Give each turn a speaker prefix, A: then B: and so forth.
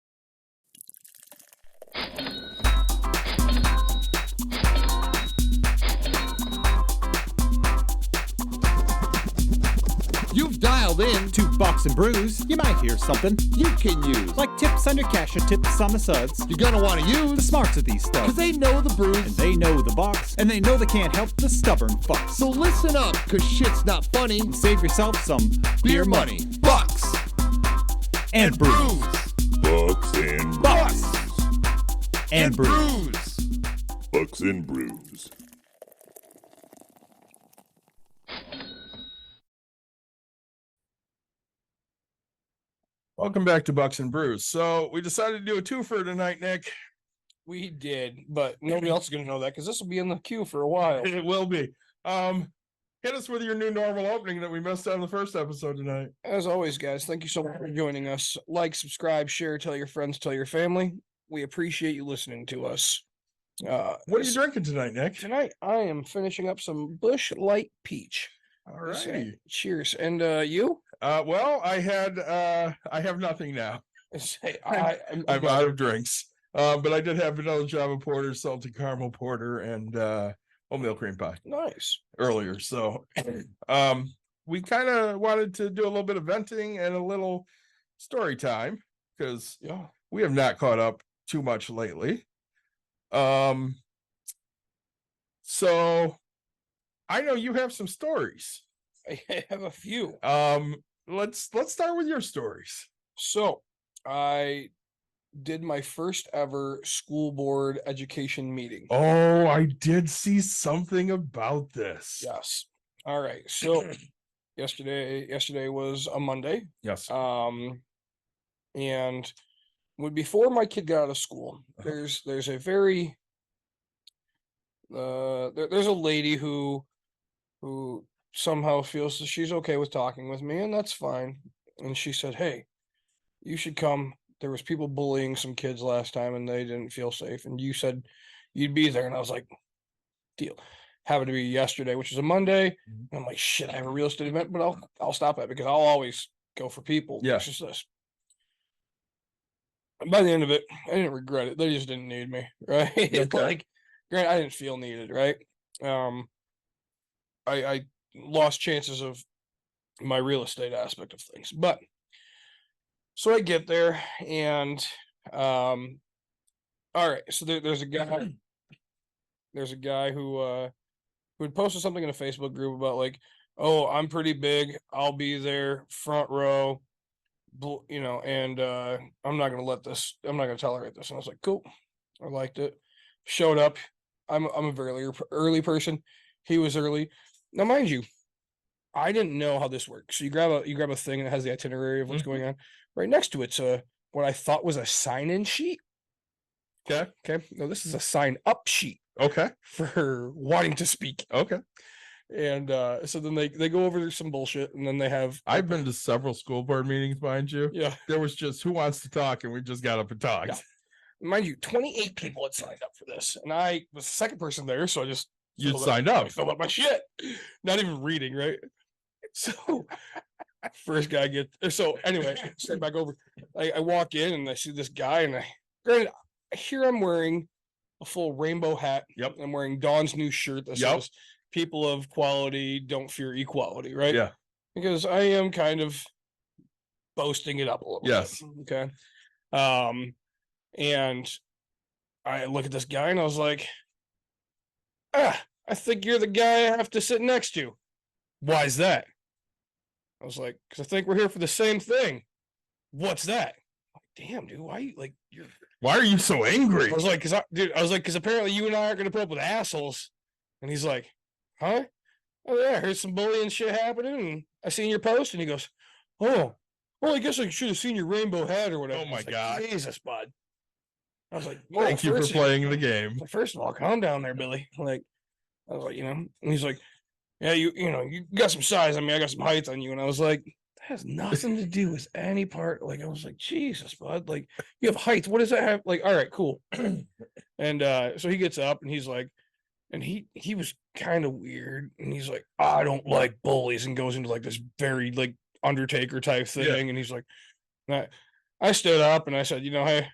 A: in to Box and Brews, you might hear something
B: you can use.
A: like tips on your cash or tips on the suds.
B: You're gonna wanna
A: The
B: use,
A: smarts of these
B: cause
A: studs.
B: they know the brews.
A: And they know the box, and they know they can't help the stubborn fucks.
B: so
A: So
B: listen up, cause shit's not funny.
A: save yourself some
B: Beer money, bucks,
A: and brews.
B: brews,
C: Bucks and
A: Bucks and brews.
B: brews.
C: Bucks and brews.
D: Welcome back to Bucks and Brews. So we decided to do a twofer tonight, Nick.
E: We did, but nobody else is gonna know that because this will be in the queue for a while.
D: It will be. Um, hit us with your new normal opening that we missed on the first episode tonight.
E: As always, guys, thank you so much for joining us. Like, subscribe, share, tell your friends, tell your family. We appreciate you listening to us. Uh,
D: What are you
E: s-
D: drinking tonight, Nick?
E: Tonight, I am finishing up some Bush Light Peach.
D: All
E: Yes, uh,
D: righty.
E: Cheers. And uh, you?
D: Uh, well, I had uh, I have nothing now.
E: Say,
D: I'm-
E: I, I'm,
D: I'm
E: okay.
D: out of drinks. Uh, but I did have vanilla java porter, salted caramel porter, and uh, oatmeal cream pie
E: nice.
D: earlier. So, um, we kind of wanted to do a little bit of venting and a little story time because
E: Yeah.
D: we have not caught up too much lately. Um, so I know you have some stories.
E: I have a few.
D: Um, let's let's start with your stories.
E: So I did my first ever school board education meeting.
D: Oh, I did see something about this.
E: Yes. All right. So yesterday yesterday was a Monday.
D: Yes.
E: Um and when before my kid got out of school,
D: Uh-huh.
E: there's there's a very uh there, there's a lady who who somehow feels that she's okay with talking with me and that's fine. And she said, "Hey, you should come. There was people bullying some kids last time and they didn't feel safe and you said you'd be there." And I was like, "Deal." Happened to be yesterday, which is a Monday.
D: Mhm.
E: And I'm like, "Shit, I have a real estate event, but I'll I'll stop that because I'll always go for people.
D: Yeah.
E: It's just this. And by the end of it, I didn't regret it. They just didn't need me, right? It's
D: Okay.
E: like, grant I didn't feel needed, right? Um, I I lost chances of my real estate aspect of things, but so I get there and um, all right. So there, there's a guy, there's a guy who uh who had posted something in a Facebook group about like, oh, I'm pretty big. I'll be there front row bl- you know, and uh, I'm not gonna let this. I'm not gonna tolerate this. And I was like, cool. I liked it. Showed up. I'm a- I'm a very early, early person. He was early. Now, mind you, I didn't know how this works. So you grab a you grab a thing and it has the itinerary of what's
D: Mhm.
E: going on. Right next to it's a what I thought was a sign in sheet.
D: Okay.
E: Okay. No, this is a sign up sheet
D: Okay.
E: for wanting to speak.
D: Okay.
E: And uh, so then they they go over some bullshit and then they have
D: I've been to several school board meetings, mind you.
E: yeah.
D: There was just who wants to talk, and we just got up and talked.
E: Yeah. mind you, 28 people had signed up for this, and I was the second person there, so I just
D: You
E: filled up-
D: signed
E: I
D: up.
E: filled up my shit, not even reading, right? So first guy get so anyway, step back over. I, I walk in and I see this guy, and I granted here I'm wearing a full rainbow hat.
D: Yep.
E: I'm wearing Dawn's new shirt that
D: Yep.
E: says "People of Quality Don't Fear Equality," right?
D: Yeah.
E: because I am kind of boasting it up a little. bit,
D: Yes.
E: Okay. Um, and I look at this guy and I was like, ah, I think you're the guy I have to sit next to. Why is that? I was like, because I think we're here for the same thing. What's that? Like, Damn, dude, why you like you're
D: Why are you so angry?
E: I was like, because I, dude, I was like, because apparently you and I aren't going to put up with assholes. And he's like, huh? Oh yeah, I heard some bullying shit happening, and I seen your post. And he goes, oh, well, I guess I should have seen your rainbow hat or whatever.
D: Oh
E: I
D: my
E: was like,
D: God.
E: Jesus, bud. I was like, "Whoa,
D: Thank you for
E: first-
D: playing the game.
E: like, first of all, calm down there, Billy. Like, I was like, you know, and he's like, yeah, you, you know, you got some size. I mean, I got some height on you. And I was like, that has nothing to do with any part. Like, I was like, Jesus, bud. Like, you have height. What does that have? Like, all right, cool. and uh, so he gets up and he's like, and he he was kind of weird. And he's like, I don't like bullies, and goes into like this very like Undertaker type
D: Yeah.
E: thing. And he's like, and I, I stood up and I said, you know, hey,